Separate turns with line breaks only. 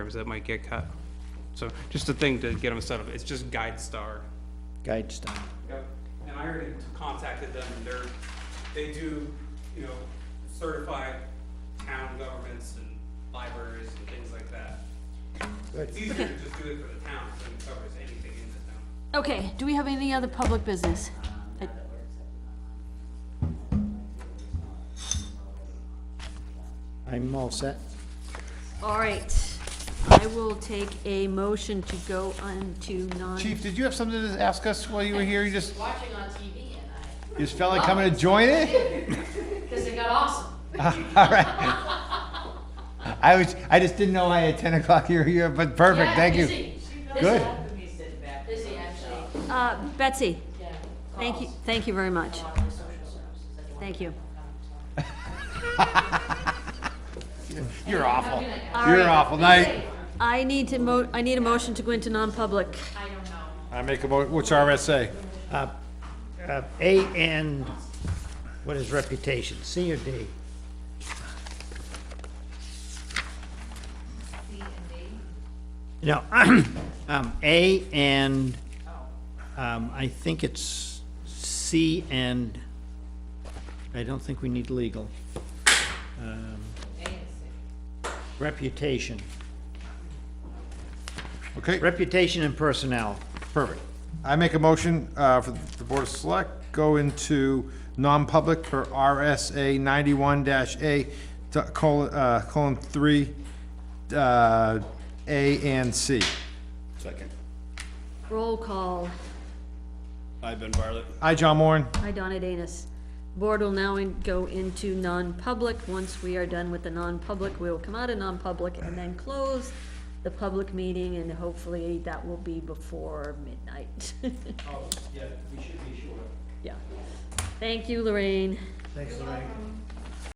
hours that might get cut. So just a thing to get them set up, it's just Guide Star.
guide star.
Yep, and I already contacted them, and they're, they do, you know, certify town governments and libraries and things like that. It's
Good.
easier to just do it for the town, so it covers anything in the town.
Okay, do we have any other public business? Uh,
I'm all set.
All right, I will take a motion to go on to non.
Chief, did you have something to ask us while you were here? You just,
watching on TV and I,
you just felt like coming to join it?
because it got awesome.
I was, I just didn't know I had ten o'clock here, here, but perfect,
Yeah,
thank you.
busy.
Good.
Busy, actually,
Uh, Betsy,
yeah.
thank you, thank you very much.
Calls on social services. I don't want
Thank you.
to come to-
You're awful.
All
You're
right.
awful. Night.
I need to mo, I need a motion to go into non-public.
I make a mo, what's RSA?
Uh, uh, A and, what is reputation, C or D? No, um, A and, um, I think it's C and, I don't think we need legal. Um, Reputation,
Okay,
reputation and personnel,
perfect. I make a motion, uh, for the Board of Select, go into non-public for RSA ninety-one dash A, to- colon, uh, colon three, uh, A and C.
Second.
Roll call.
I've been Bartlett.
Hi, John Moran.
Hi, Donna Danus. Board will now in- go into non-public. Once we are done with the non-public, we will come out of non-public and then close the public meeting, and hopefully that will be before midnight. Oh, yeah, we should be sure. Yeah. Thank you, Lorraine.
Thanks, Lorraine.